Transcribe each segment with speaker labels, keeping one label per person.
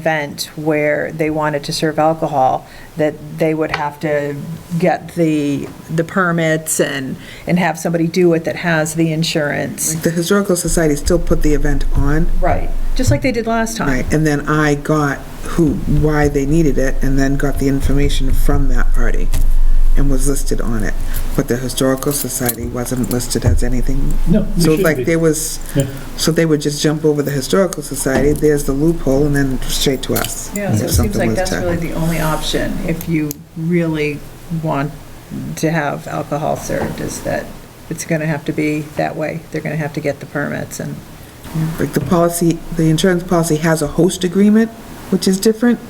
Speaker 1: event where they wanted to serve alcohol, that they would have to get the, the permits and, and have somebody do it that has the insurance.
Speaker 2: The Historical Society still put the event on,
Speaker 1: Right. Just like they did last time.
Speaker 2: right, and then I got who, why they needed it, and then got the information from that party and was listed on it. But the Historical Society wasn't listed as anything.
Speaker 3: No, they
Speaker 2: So
Speaker 3: shouldn't
Speaker 2: like
Speaker 3: be.
Speaker 2: there was,
Speaker 3: Yeah.
Speaker 2: so they would just jump over the Historical Society, there's the loophole, and then straight to us.
Speaker 1: Yeah, so
Speaker 2: if
Speaker 1: it seems
Speaker 2: something
Speaker 1: like
Speaker 2: was
Speaker 1: that's
Speaker 2: tackled.
Speaker 1: really the only option if you really want to have alcohol served, is that it's going to have to be that way. They're going to have to get the permits and.
Speaker 2: Like the policy, the insurance policy has a host agreement, which is different.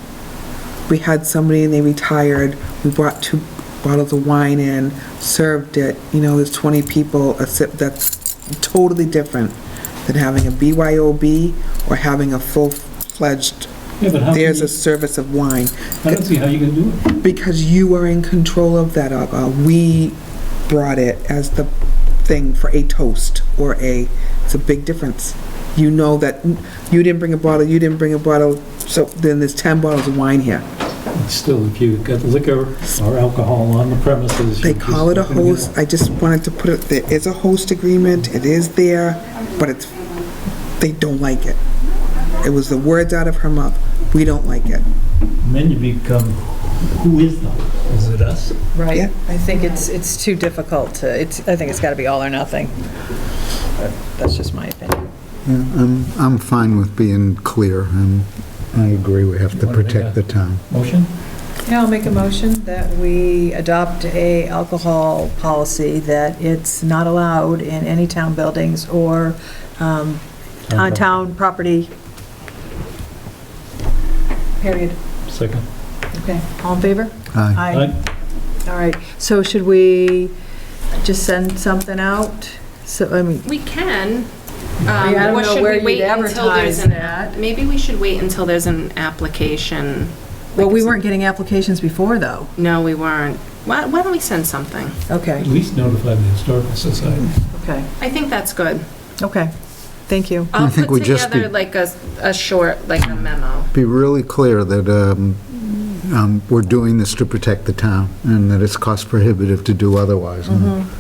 Speaker 2: We had somebody and they retired, we brought two bottles of wine in, served it, you know, there's 20 people, a sip, that's totally different than having a BYOB or having a full-fledged,
Speaker 3: Yeah, but how can
Speaker 2: there's
Speaker 3: you-
Speaker 2: a service of wine.
Speaker 3: I don't see how you can do it.
Speaker 2: Because you are in control of that alcohol. We brought it as the thing for a toast or a, it's a big difference. You know that you didn't bring a bottle, you didn't bring a bottle, so then there's 10 bottles of wine here.
Speaker 3: Still, if you've got liquor or alcohol on the premises.
Speaker 2: They
Speaker 3: you're just
Speaker 2: call it a
Speaker 3: not gonna get
Speaker 2: host, I just wanted to put it, there is a host agreement, it is there, but it's, they don't like it. It was the words out of her mouth, we don't like it.
Speaker 3: And Then you become, who is them? Is it us?
Speaker 2: Yeah.
Speaker 1: Right. I think it's, it's too difficult to, it's, I think it's got to be all or nothing. But That's just my opinion.
Speaker 4: Yeah, I'm, I'm fine with being clear, and I agree, we have to
Speaker 3: wanna make
Speaker 4: protect
Speaker 3: a-
Speaker 4: the town.
Speaker 3: Motion?
Speaker 1: Yeah, I'll make a motion that we adopt a alcohol policy that it's not allowed in any town buildings or um, on town property. Period.
Speaker 3: Second.
Speaker 1: Okay, all in favor?
Speaker 4: Aye.
Speaker 1: Aye. All right, so should we just send something out? So, I mean,
Speaker 5: We can.
Speaker 1: I
Speaker 5: Um,
Speaker 1: don't
Speaker 5: or
Speaker 1: know
Speaker 5: should
Speaker 1: where
Speaker 5: we
Speaker 1: you'd
Speaker 5: wait until
Speaker 1: advertise
Speaker 5: there's an-
Speaker 1: that.
Speaker 5: Maybe we should wait until there's an application.
Speaker 1: well, we weren't getting applications before, though.
Speaker 5: No, we weren't. Why, why don't we send something?
Speaker 1: Okay,
Speaker 3: At least notify the historical society.
Speaker 1: okay,
Speaker 5: I think that's good.
Speaker 1: okay. Thank you.
Speaker 5: I'll
Speaker 4: think we
Speaker 5: put
Speaker 4: just
Speaker 5: together
Speaker 4: be-
Speaker 5: like a, a short, like a memo.
Speaker 4: Be really clear that um, um, we're doing this to protect the town, and that it's cost prohibitive to do otherwise.
Speaker 1: Mm-hmm.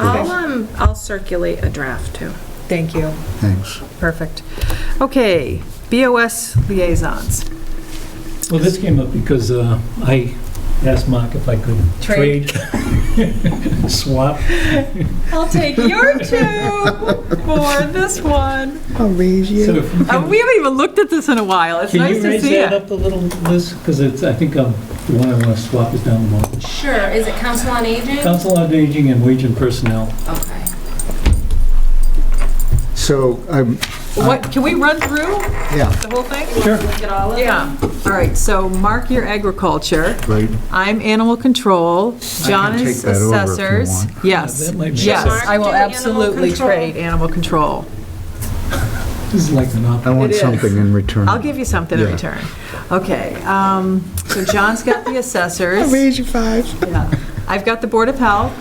Speaker 4: and
Speaker 5: I'll, um, I'll circulate a draft too.
Speaker 1: Thank you.
Speaker 4: Thanks.
Speaker 1: Perfect. Okay, BOS liaisons.
Speaker 3: Well, this came up because uh, I asked Mark if I could
Speaker 1: Trade.
Speaker 3: trade, swap.
Speaker 1: I'll take your two for this one.
Speaker 2: I'll raise you.
Speaker 3: So if you
Speaker 1: Uh,
Speaker 3: can-
Speaker 1: We haven't even looked at this in a while. It's
Speaker 3: Can
Speaker 1: nice
Speaker 3: you
Speaker 1: to
Speaker 3: raise
Speaker 1: see
Speaker 3: that
Speaker 1: it.
Speaker 3: up a little, Liz? Because it's, I think um, the one I want to swap is down the bottom.
Speaker 5: Sure. Is it Council on Aging?
Speaker 3: Council on Aging and Wage and Personnel.
Speaker 5: Okay.
Speaker 4: So, um,
Speaker 1: What, can we run through
Speaker 4: yeah,
Speaker 1: the whole thing?
Speaker 3: Sure.
Speaker 5: Look at all of them?
Speaker 1: Yeah, all right, so mark your agriculture.
Speaker 4: right,
Speaker 1: I'm animal control. John
Speaker 4: take
Speaker 1: is
Speaker 4: that over if you
Speaker 1: assessors.
Speaker 4: want.
Speaker 3: Yeah,
Speaker 1: Yes,
Speaker 3: that might be
Speaker 1: yes,
Speaker 3: better.
Speaker 1: I will
Speaker 5: Mark, do animal
Speaker 1: absolutely
Speaker 5: control.
Speaker 1: trade animal control.
Speaker 3: This is like
Speaker 4: I
Speaker 3: monopoly.
Speaker 4: want
Speaker 1: It is.
Speaker 4: something in return.
Speaker 1: I'll give you something in
Speaker 4: Yeah.
Speaker 1: return. Okay, um, so John's got the
Speaker 2: I'll
Speaker 1: assessors.
Speaker 2: raise you five.
Speaker 1: Yeah. I've got the Board of Health.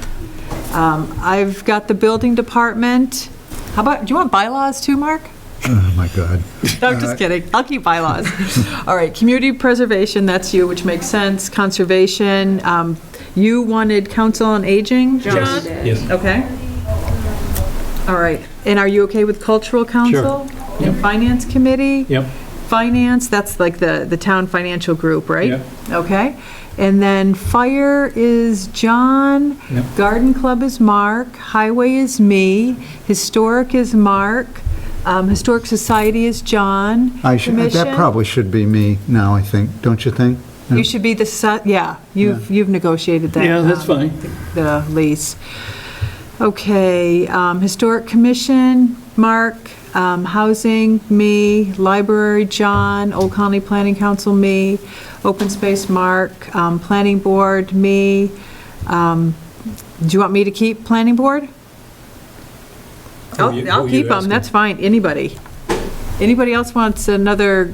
Speaker 1: Um, I've got the building department. How about, do you want bylaws too, Mark?
Speaker 4: Oh, my God.
Speaker 1: No, I'm just kidding. I'll keep bylaws. All right, community preservation, that's you, which makes sense. Conservation, um, you wanted council on aging,
Speaker 5: John
Speaker 1: John?
Speaker 5: did.
Speaker 3: Yes,
Speaker 1: Okay. All right, and are you okay with cultural council? And finance committee?
Speaker 3: yep.
Speaker 1: Finance, that's like the, the town financial group, right?
Speaker 3: Yep.
Speaker 1: Okay. And then fire is John.
Speaker 3: Yep.
Speaker 1: Garden club is Mark. Highway is me. Historic is Mark. Um, Historic society is John.
Speaker 4: I should, that
Speaker 1: Commission?
Speaker 4: probably should be me now, I think, don't you think?
Speaker 1: You should be the, su- yeah, you've, you've negotiated that.
Speaker 3: Yeah, that's
Speaker 1: um,
Speaker 3: fine.
Speaker 1: The lease. Okay, um, Historic Commission, Mark, um, Housing, me, Library, John, Old Colony Planning Council, me, Open Space, Mark, um, Planning Board, me. Um, Do you want me to keep Planning Board?
Speaker 3: Who you-
Speaker 1: I'll, I'll
Speaker 3: who you
Speaker 1: keep them,
Speaker 3: asking?
Speaker 1: that's fine, anybody. Anybody else wants another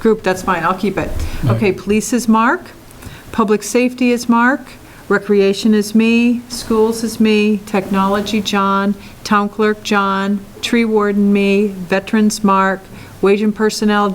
Speaker 1: group, that's fine, I'll keep it. Okay, police is Mark, public safety is Mark, recreation is me, schools is me, technology, John, town clerk, John, tree warden, me, veterans, Mark, Wage and Personnel